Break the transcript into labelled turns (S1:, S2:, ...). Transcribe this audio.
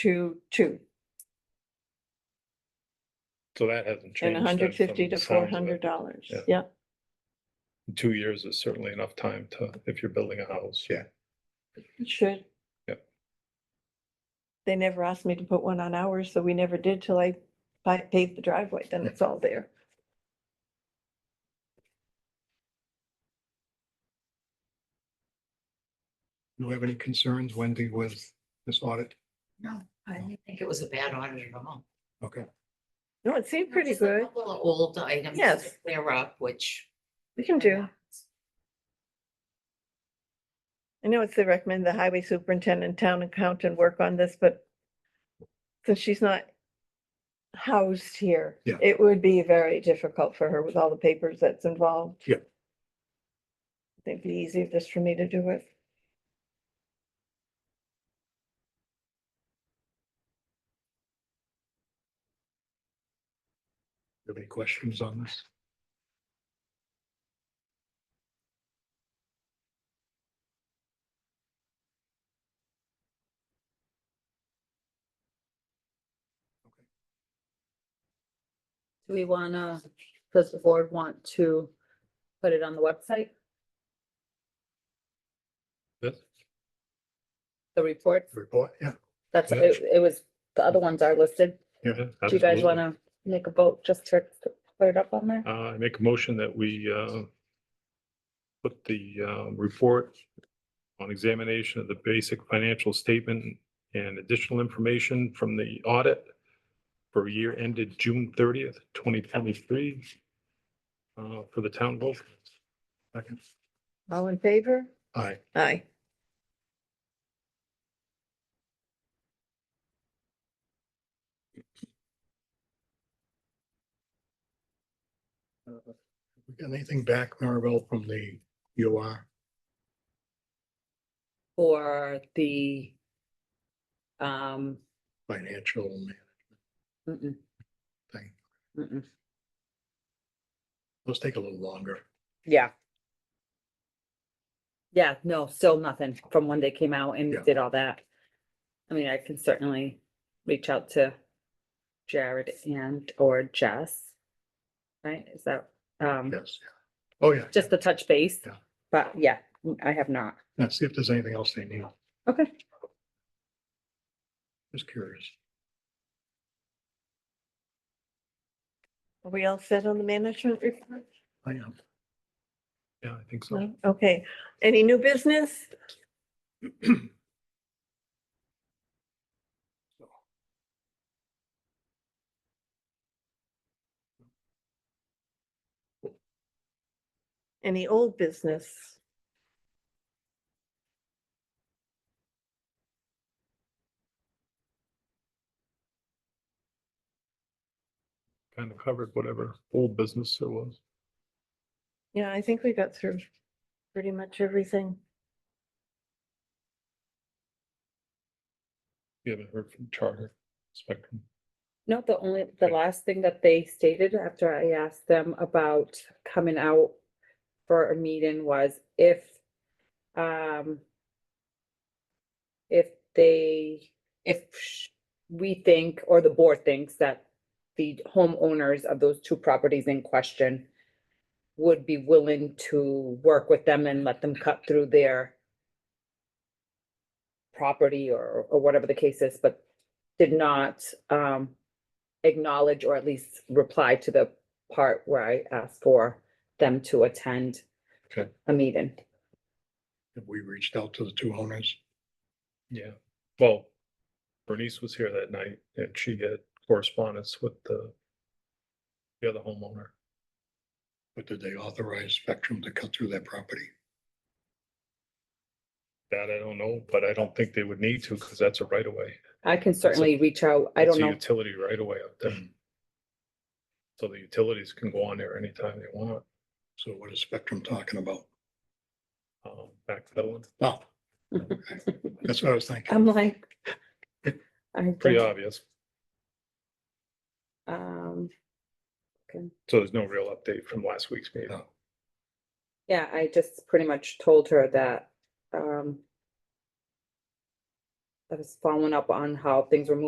S1: to two,
S2: So that hasn't
S1: and
S2: changed.
S1: hundred
S2: then,
S1: fifty
S2: from the
S1: to
S2: sounds
S1: four
S2: of it.
S1: hundred dollars,
S2: Yeah.
S1: yeah.
S2: Two years is certainly enough time to, if you're building a house.
S3: Yeah.
S1: It Should.
S2: Yep.
S1: They never asked me to put one on ours, so we never did till I pa- paved the driveway, then it's all there.
S3: Do you have any concerns, Wendy, with this audit?
S4: No, I
S1: Oh.
S4: didn't think it was a bad audit at all.
S3: Okay,
S1: No, it seemed pretty
S4: Just a
S1: good.
S4: couple of Old items.
S1: Yes.
S4: to Clear up, which.
S1: We can do. I know it's the recommend the highway superintendent, town accountant work on this, but since she's not housed here,
S3: Yeah.
S1: it would be very difficult for her with all the papers that's involved.
S3: Yeah.
S1: I think it'd be easier just for me to do it.
S3: Do you have any questions on this?
S5: Do we wanna, does the board want to put it on the website,
S2: This-
S5: the report?
S3: Report, yeah.
S5: That's,
S2: Yeah.
S5: it, it was, the other ones are listed.
S2: yeah,
S5: Do you guys
S2: absolutely.
S5: wanna make a vote just to put it up on there?
S2: Uh, I make a motion that we, uh, put the, um, report on examination of the basic financial statement and additional information from the audit for year ended June thirtieth, twenty twenty-three, uh, for the town vote.
S3: Second.
S1: All in favor?
S3: Aye.
S1: Aye.
S3: Uh, we got Anything back, Maribel, from the UR?
S5: For the, um,
S3: financial man-
S5: mm-mm,
S3: thing?
S5: mm-mm.
S3: Those take a little longer.
S5: yeah. Yeah, no, still nothing from when they came out and
S3: Yeah.
S5: did all that. I mean, I can certainly reach out to Jared and or Jess. Right, is that, um?
S3: Yes. Oh, yeah.
S5: just the touch base.
S3: Yeah.
S5: But yeah, I have not.
S3: Let's see if there's anything else they need.
S5: Okay.
S3: Just curious.
S1: Are we all set on the management report?
S3: I am.
S2: Yeah, I think so.
S1: No? Okay, any new business? Any old business?
S2: Kind of covered whatever old business there was.
S1: Yeah, I think we got through pretty much everything.
S2: You haven't heard from Charter Spectrum.
S5: No, the only, the last thing that they stated after I asked them about coming out for a meeting was if, um, if they, if sh- we think, or the board thinks that the homeowners of those two properties in question would be willing to work with them and let them cut through their property or, or whatever the case is, but did not, um, acknowledge or at least reply to the part where I asked for them to attend
S2: Okay.
S5: a meeting.
S3: Have we reached out to the two owners?
S2: Yeah, well, Bernice was here that night and she had correspondence with the the other homeowner.
S3: But did they authorize Spectrum to cut through their property?
S2: That I don't know, but I don't think they would need to because that's a right of way.
S5: I can certainly reach out. I
S2: It's
S5: don't
S2: a
S5: know.
S2: Utility right of way up there.
S5: Mm.
S2: So the utilities can go on there anytime they want.
S3: So what is Spectrum talking about?
S2: Um, back to that one,
S3: Oh. okay. That's what I was thinking.
S5: I'm like. I
S2: pretty
S5: don't-
S2: obvious.
S5: Um,
S2: So there's no real update from last week's meeting.
S3: Oh,
S5: yeah, I just pretty much told her that, um, I was following up on how things were moving